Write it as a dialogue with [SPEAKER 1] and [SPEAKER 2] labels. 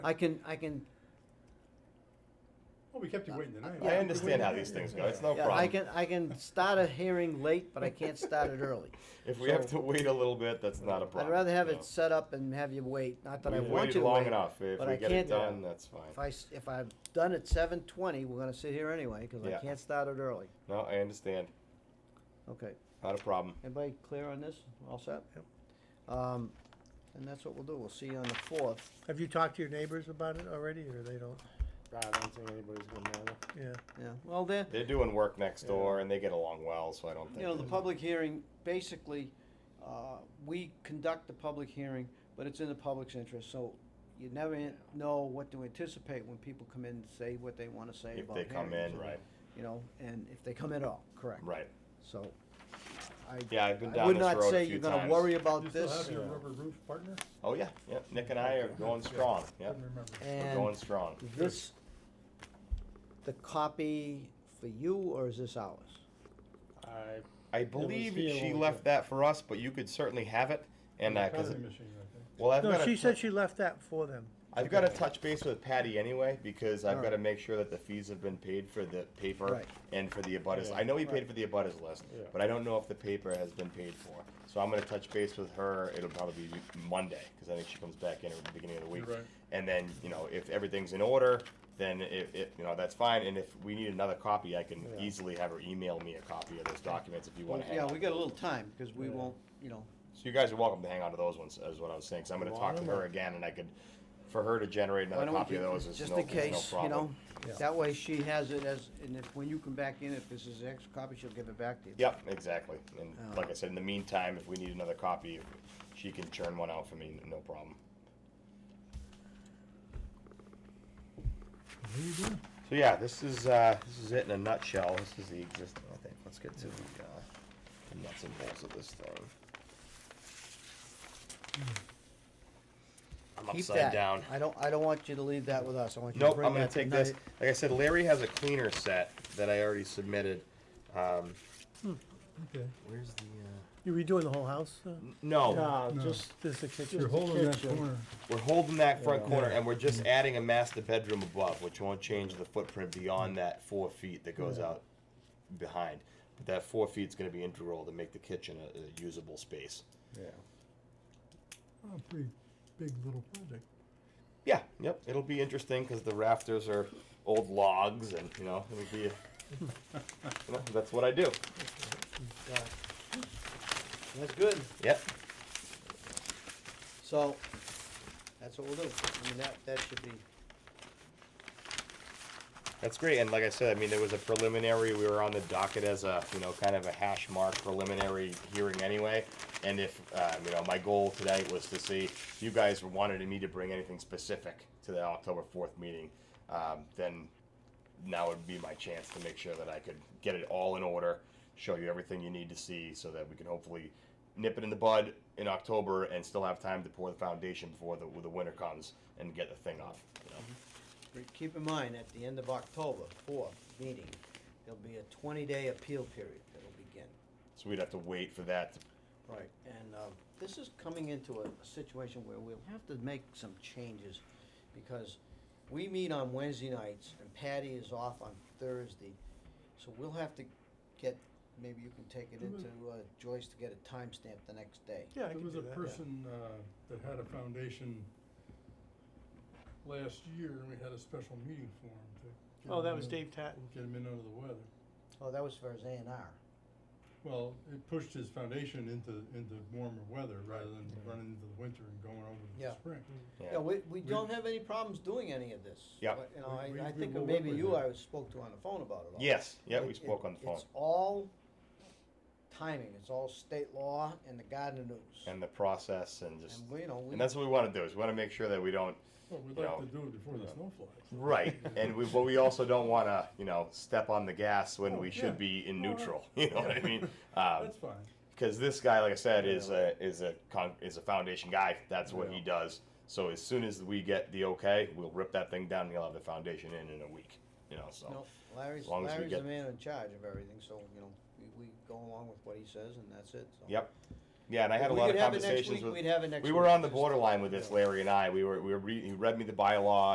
[SPEAKER 1] I can, I can,
[SPEAKER 2] Well, we kept you waiting tonight.
[SPEAKER 1] Yeah.
[SPEAKER 3] I understand how these things go, it's no
[SPEAKER 1] yeah, I
[SPEAKER 3] problem.
[SPEAKER 1] can, I can start a hearing late, but I can't start it early.
[SPEAKER 3] If we have to wait a little bit, that's not a problem.
[SPEAKER 1] I'd rather have
[SPEAKER 3] you know.
[SPEAKER 1] it set up and have you wait, not that I
[SPEAKER 3] We've
[SPEAKER 1] want you to
[SPEAKER 3] waited
[SPEAKER 1] wait.
[SPEAKER 3] long enough, if
[SPEAKER 1] but
[SPEAKER 3] we
[SPEAKER 1] I
[SPEAKER 3] get it
[SPEAKER 1] can't-
[SPEAKER 3] done, that's
[SPEAKER 1] If
[SPEAKER 3] fine.
[SPEAKER 1] I, s- if I'm done at seven twenty, we're gonna sit here anyway, cause I
[SPEAKER 3] Yeah.
[SPEAKER 1] can't start it early.
[SPEAKER 3] No, I understand,
[SPEAKER 1] Okay,
[SPEAKER 3] not a problem.
[SPEAKER 1] everybody clear on this? All set? Yep. Um, and that's what we'll do. We'll see you on the fourth.
[SPEAKER 4] Have you talked to your neighbors about it already, or they don't?
[SPEAKER 5] I don't think anybody's gonna matter.
[SPEAKER 4] Yeah,
[SPEAKER 1] Yeah, well, there,
[SPEAKER 3] They're doing work next door and they get along well, so I don't think.
[SPEAKER 1] you know, the
[SPEAKER 3] there's-
[SPEAKER 1] public hearing, basically, uh, we conduct the public hearing, but it's in the public's interest, so you never an- know what to anticipate when people come in and say what they wanna say
[SPEAKER 3] If
[SPEAKER 1] about
[SPEAKER 3] they
[SPEAKER 1] hearings.
[SPEAKER 3] come in, right,
[SPEAKER 1] You know, and if they come in at all, correct.
[SPEAKER 3] right.
[SPEAKER 1] So, I,
[SPEAKER 3] Yeah, I've been
[SPEAKER 1] I
[SPEAKER 3] down
[SPEAKER 1] would
[SPEAKER 3] this road
[SPEAKER 1] not
[SPEAKER 3] a
[SPEAKER 1] say
[SPEAKER 3] few
[SPEAKER 1] you're gonna
[SPEAKER 3] times.
[SPEAKER 1] worry
[SPEAKER 2] You
[SPEAKER 1] about
[SPEAKER 2] still
[SPEAKER 1] this,
[SPEAKER 2] have your rubber roof partner?
[SPEAKER 3] Oh, yeah, yeah, Nick and I are going strong, yeah,
[SPEAKER 2] Couldn't remember.
[SPEAKER 3] we're
[SPEAKER 1] and
[SPEAKER 3] going strong.
[SPEAKER 1] this, the copy for you, or is this ours?
[SPEAKER 5] I,
[SPEAKER 3] I believe
[SPEAKER 5] here
[SPEAKER 3] she
[SPEAKER 5] when we
[SPEAKER 3] left
[SPEAKER 5] took-
[SPEAKER 3] that for us, but you could certainly have it, and, uh, cause,
[SPEAKER 2] Copy
[SPEAKER 3] it-
[SPEAKER 2] machine, I think.
[SPEAKER 3] well, I've
[SPEAKER 4] no,
[SPEAKER 3] got
[SPEAKER 4] she
[SPEAKER 3] to,
[SPEAKER 4] said she left that for them.
[SPEAKER 3] I've got to touch base with Patty anyway, because I've got to
[SPEAKER 1] Alright.
[SPEAKER 3] make sure that the fees have been paid for the paper
[SPEAKER 1] Right.
[SPEAKER 3] and for the abutters,
[SPEAKER 5] Yeah.
[SPEAKER 3] I know he paid for the abutters list,
[SPEAKER 5] Yeah.
[SPEAKER 3] but I don't know if the paper has been paid for. So I'm gonna touch base with her, it'll probably be Monday, cause I think she comes back in at the beginning of the week.
[SPEAKER 2] You're right.
[SPEAKER 3] And then, you know, if everything's in order, then it, it, you know, that's fine, and if we need another copy, I can
[SPEAKER 5] Yeah.
[SPEAKER 3] easily have her email me a copy of those documents if you wanna hang
[SPEAKER 1] Yeah,
[SPEAKER 3] on
[SPEAKER 1] we
[SPEAKER 3] to
[SPEAKER 1] got a
[SPEAKER 3] them.
[SPEAKER 1] little time, because we
[SPEAKER 5] Yeah.
[SPEAKER 1] won't, you know,
[SPEAKER 3] So you guys are welcome to hang on to those ones, is what I was saying. Cause I'm going to talk to her again, and I could, for her to generate
[SPEAKER 1] Why
[SPEAKER 3] another
[SPEAKER 1] don't
[SPEAKER 3] copy
[SPEAKER 1] you,
[SPEAKER 3] of those is
[SPEAKER 1] just
[SPEAKER 3] no,
[SPEAKER 1] in
[SPEAKER 3] is no
[SPEAKER 1] case, you know,
[SPEAKER 3] problem.
[SPEAKER 5] Yeah.
[SPEAKER 1] that way she has it as, and if, when you come back in, if this is extra copy, she'll give it back to you.
[SPEAKER 3] Yep, exactly. And
[SPEAKER 1] Uh,
[SPEAKER 3] like I said, in the meantime, if we need another copy, she can churn one out for me, no problem. So yeah, this is uh, this is it in a nutshell. This is the existing. I think. Let's get to the, uh, the nuts and bolts of this thing. I'm
[SPEAKER 1] Keep
[SPEAKER 3] upside
[SPEAKER 1] that.
[SPEAKER 3] down.
[SPEAKER 1] I don't, I don't want you to leave that with us, I want you to
[SPEAKER 3] Nope, I'm
[SPEAKER 1] bring
[SPEAKER 3] gonna
[SPEAKER 1] that
[SPEAKER 3] take this.
[SPEAKER 1] tonight.
[SPEAKER 3] Like I said, Larry has a cleaner set that I already submitted. Um,
[SPEAKER 2] Okay.
[SPEAKER 3] Where's the, uh?
[SPEAKER 4] You redoing the whole house? uh,
[SPEAKER 5] Mm.
[SPEAKER 3] n- No,
[SPEAKER 5] no,
[SPEAKER 2] No.
[SPEAKER 5] just,
[SPEAKER 4] This is the
[SPEAKER 2] You're
[SPEAKER 4] kitchen?
[SPEAKER 2] holding that
[SPEAKER 5] kitchen.
[SPEAKER 2] corner.
[SPEAKER 3] we're holding that front
[SPEAKER 5] Yeah.
[SPEAKER 3] corner and we're just adding a master bedroom above, which won't change the footprint beyond that four feet that goes out behind. But that four feet's gonna be integral to make the kitchen a, a usable space.
[SPEAKER 5] yeah,
[SPEAKER 2] Oh, pretty big little project.
[SPEAKER 3] Yeah, yep, it'll be interesting because the rafters are old logs and, you know, it'll be, a- you know, that's what I do.
[SPEAKER 1] That's good,
[SPEAKER 3] Yep,
[SPEAKER 1] so, that's what we'll do, I mean, that, that should be,
[SPEAKER 3] That's great, and like I said, I mean, there was a preliminary, we were on the docket as a, you know, kind of a hash mark preliminary hearing anyway. And if, uh, you know, my goal tonight was to see, if you guys wanted me to bring anything specific to the October fourth meeting, um, then now would be my chance to make sure that I could get it all in order, show you everything you need to see, so that we can hopefully nip it in the bud in October and still have time to pour the foundation before the, the winter comes and get the thing up, you know?
[SPEAKER 1] re- keep in mind, at the end of October, fourth meeting, there'll be a twenty-day appeal period that'll begin.
[SPEAKER 3] So we'd have to wait for that to
[SPEAKER 1] Right, and um, this is coming into a situation where we'll have to make some changes, because we meet on Wednesday nights, and Patty is off on Thursday, so we'll have to get, maybe you can take it into
[SPEAKER 2] Mm-hmm.
[SPEAKER 1] uh, Joyce to get a timestamp the next day.
[SPEAKER 4] Yeah, I
[SPEAKER 2] There
[SPEAKER 4] can
[SPEAKER 2] was
[SPEAKER 4] do
[SPEAKER 2] a
[SPEAKER 4] that.
[SPEAKER 2] person, uh, that had a foundation last year and we had a special meeting for him to. get
[SPEAKER 4] Oh,
[SPEAKER 2] him
[SPEAKER 4] that
[SPEAKER 2] in
[SPEAKER 4] was
[SPEAKER 2] under-
[SPEAKER 4] Dave Tatton.
[SPEAKER 2] Get him in under the weather.
[SPEAKER 1] Oh, that was for his A and R.
[SPEAKER 2] Well, it pushed his foundation into, into warmer weather rather than running into the winter and going over to
[SPEAKER 1] Yeah.
[SPEAKER 2] the spring.
[SPEAKER 4] Mm.
[SPEAKER 3] Yeah.
[SPEAKER 1] Yeah, we, we
[SPEAKER 2] We-
[SPEAKER 1] don't have any problems doing any of this.
[SPEAKER 3] Yeah.
[SPEAKER 1] But, You
[SPEAKER 2] We- we-
[SPEAKER 1] know, I, I
[SPEAKER 2] we
[SPEAKER 1] think
[SPEAKER 2] will work
[SPEAKER 1] maybe
[SPEAKER 2] with
[SPEAKER 1] you
[SPEAKER 2] it.
[SPEAKER 1] I spoke to on the phone about it all.
[SPEAKER 3] Yes, yeah, we
[SPEAKER 1] It-
[SPEAKER 3] spoke on the
[SPEAKER 1] it-
[SPEAKER 3] phone.
[SPEAKER 1] It's all timing, it's all state law and the Gardner News.
[SPEAKER 3] And the process and just,
[SPEAKER 1] And we, you know, we.
[SPEAKER 3] and that's what we want to do, is we want to make sure that we don't,
[SPEAKER 2] Well, we'd
[SPEAKER 3] You
[SPEAKER 2] like
[SPEAKER 3] know,
[SPEAKER 2] to do it before the snow flies.
[SPEAKER 3] right, and we, but we also don't want to, you know, step on the gas when
[SPEAKER 2] Oh,
[SPEAKER 3] we
[SPEAKER 2] yeah.
[SPEAKER 3] should be in
[SPEAKER 2] Oh,
[SPEAKER 3] neutral, you know what I mean? Um,
[SPEAKER 2] That's fine.
[SPEAKER 3] Because this guy, like I said, is a is a con- is a foundation guy. That's what he
[SPEAKER 2] Yeah.
[SPEAKER 3] does. So as soon as we get the okay, we'll rip that thing down and he'll have the foundation in in a week, you know, so.
[SPEAKER 1] No, Larry's,
[SPEAKER 3] as long as we
[SPEAKER 1] Larry's the
[SPEAKER 3] get-
[SPEAKER 1] man in charge of everything, so, you know, we, we go along with what he says and that's it, so.
[SPEAKER 3] Yep. Yeah, and I had a
[SPEAKER 1] We
[SPEAKER 3] lot
[SPEAKER 1] could
[SPEAKER 3] of
[SPEAKER 1] have it next
[SPEAKER 3] conversations
[SPEAKER 1] week,
[SPEAKER 3] with.
[SPEAKER 1] we'd have it next
[SPEAKER 3] We were
[SPEAKER 1] week,
[SPEAKER 3] on the
[SPEAKER 1] just-
[SPEAKER 3] borderline with this, Larry and I. We were, we were, re- he read me the bylaw